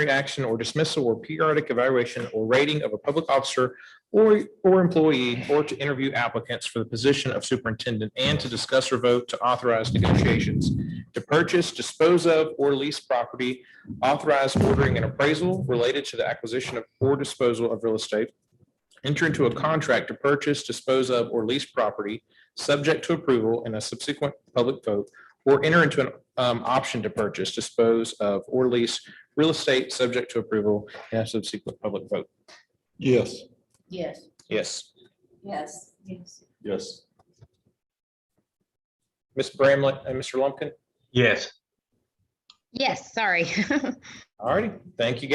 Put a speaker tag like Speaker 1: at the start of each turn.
Speaker 1: action or dismissal or periodic evaluation or rating of a public officer or, or employee, or to interview applicants for the position of superintendent, and to discuss or vote to authorize negotiations to purchase, dispose of, or lease property, authorize ordering and appraisal related to the acquisition of or disposal of real estate, enter into a contract to purchase, dispose of, or lease property, subject to approval and a subsequent public vote, or enter into an um, option to purchase, dispose of, or lease real estate, subject to approval and a subsequent public vote.
Speaker 2: Yes.
Speaker 3: Yes.
Speaker 1: Yes.
Speaker 3: Yes. Yes.
Speaker 2: Yes.
Speaker 1: Ms. Bramlett and Mr. Lumpkin?
Speaker 4: yes.
Speaker 5: Yes, sorry.
Speaker 1: All righty. Thank you, guys.